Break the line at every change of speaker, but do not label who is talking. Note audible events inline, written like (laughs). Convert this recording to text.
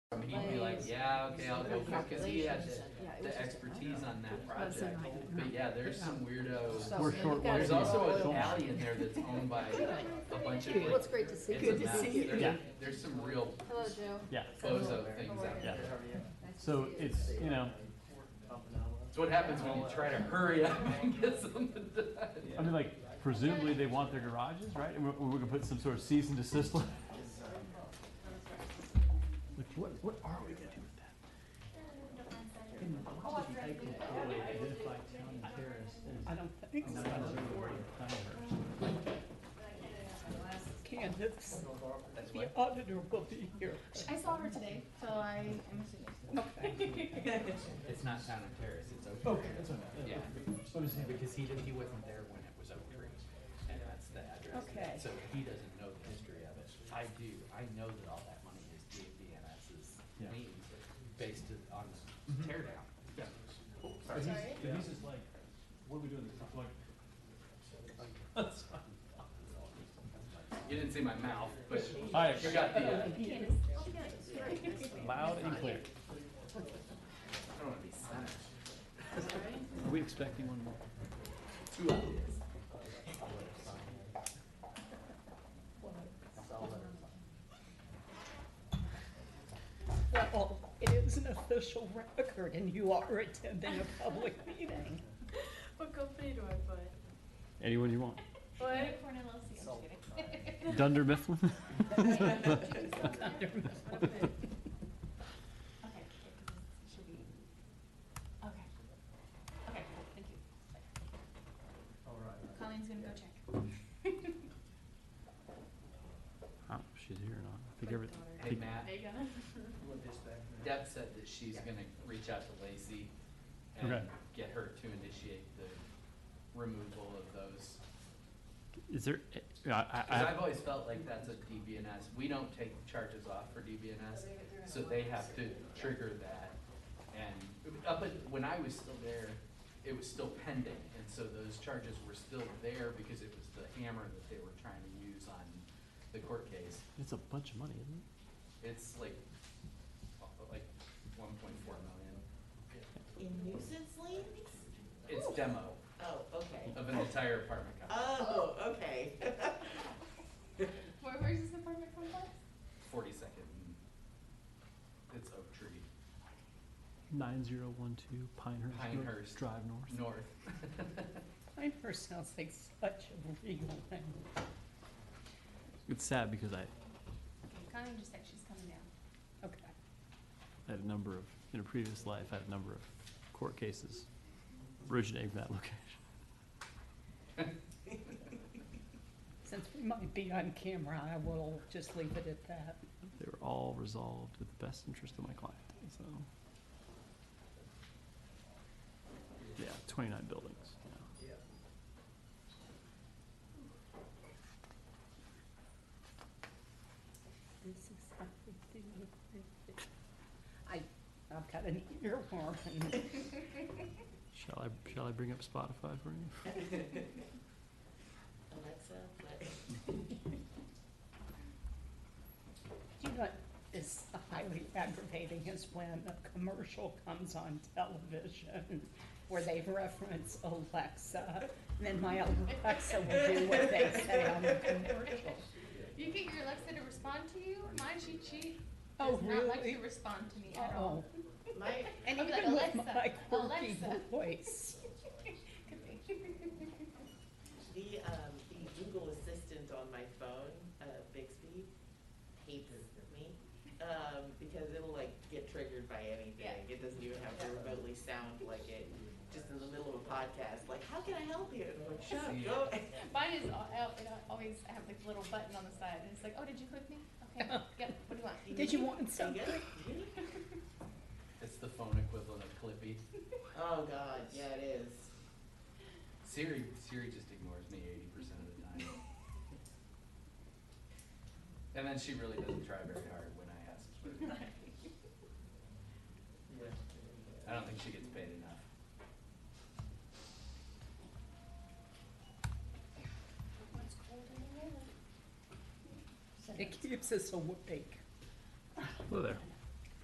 like, yeah, okay, I'll go for it, cause he had
Calculations and- yeah,
the,
it was
the
just a-
expertise on that
Wasn't
project.
like-
But yeah, there's some
So-
weirdo,
We're
and you
short
gotta
there's
do
also
oil.
an alley in there that's owned by a bunch of like.
Well, it's great to see
it's
you.
a mess. There's-
Yeah.
There's some real
Hello, Joe.
Yeah,
bozo things out
Yeah.
Nice
there.
to
so
see you.
it's, you know,
It's what happens when you try to hurry up and get something done.
I mean, like presumably they want their garages, right? And we're, we're gonna put some sort of cease and desist. letter. Like, what, what are we gonna do with that? I don't think so.
Candace,
That's
the
what,
auditor will be here.
I saw her today, so I am assuming.
it's not town of Terrace, it's Oak Tree.
Okay, that's what I meant.
Yeah.
What is it?
Because he, did- he wasn't there when it was Oak Tree, and that's the address.
Okay.
So he doesn't know the history of it. I do, I know that all that money is DNS's
Yeah. Mm-hmm.
lien based on the tear down.
But
(laughs)
he's, but he's just like, what are we doing? I'm like, that's fine.
You didn't see my mouth, but
All
you
right,
got the, uh, I
loud and clear.
don't wanna be silent.
Are we expecting one more?
Two of them.
Well, it is an official record and you are attending a public meeting.
What company do I put?
Anyone you want.
What?
Unicorn LLC, I'm just kidding.
Dunder (laughs) Mifflin? Oh,
Okay, it should be, okay. Okay, cool, thank you.
Colleen's gonna go check.
Oh, she's here or not. I think everything.
Hey, Matt,
There you go. (laughs)
Deb said that she's gonna reach out to Lacey
Okay.
and get her to initiate the removal of those
Is there, I, I,
Because I've
I,
always felt like that's a DBNS. We don't take charges off for DBNS, so they have to trigger that. And up at, when I was still there, it was still pending, and so those charges were still there because it was the hammer that they were trying to use on the court case.
it's a bunch of money, isn't it?
It's like, like one point four million.
In nuisance liens?
It's demo
Oh, okay.
of an entire apartment complex,
Oh, (laughs) okay.
Where, where's this apartment complex?
forty second. It's Oak Tree
Nine zero one two Pinehurst. Road,
Pinehurst.
Drive north.
North. (laughs)
Pinehurst sounds like such a real
It's sad because I
Okay, Colleen just said she's coming down.
Okay.
had a number of, in a previous life, I had a number of court cases originating from that (laughs) location.
Since we might be on camera, I will just leave it at that.
They were all resolved with the best interest of my client, so. Yeah, twenty-nine buildings. yeah.
This is how we do it. I, I've got an earworm and
Shall I, shall I bring up Spotify for you?
Alexa, what?
Do you know what is highly aggravating is when a commercial comes on television where they reference Alexa, and then my Alexa will do what they say on the commercial.
You get your Alexa to respond to you? Mine, she, she
Oh,
does not like
really?
to respond to me at all.
Uh-oh.
My,
And
I'll be
even
like,
with my
"Alexa,
quirky
Alexa."
voice. (laughs)
Could be.
the, um, the Google Assistant on my phone, uh, Bixby, hates me, um, because it'll like get triggered by anything. It doesn't even have to remotely sound like it, just in the middle of a podcast, like, how can I help you? And I'm like, shut
See.
(laughs) up, go.
(laughs) Mine is al- al- it al- always, I have like a little button on the side, and it's like, oh, did you click me? Okay,
(laughs)
yep, what do you want?
Did you
(laughs)
want
You
something?
get it? You get it?
It's the phone equivalent of Clippy.
Oh, God, yeah, it is.
Siri Siri just ignores me eighty percent of the time. and then she really doesn't try very hard when I ask. her. I don't think she gets paid enough.
It keeps us awake.
Hello there.